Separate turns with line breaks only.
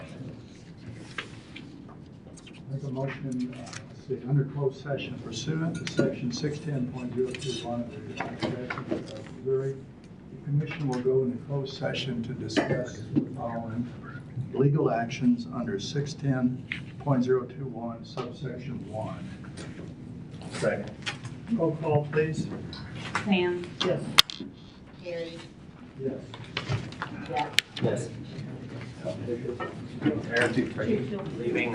Make a motion, uh, let's see, under closed session pursuant to section six ten point zero two one of the Statute of Missouri, the commission will go into closed session to discuss the following legal actions under six ten point zero two one subsection one.
Second.
Roll call, please.
Sam?
Yes.
Gary?
Yes.
Yes.
Yes. Leaving.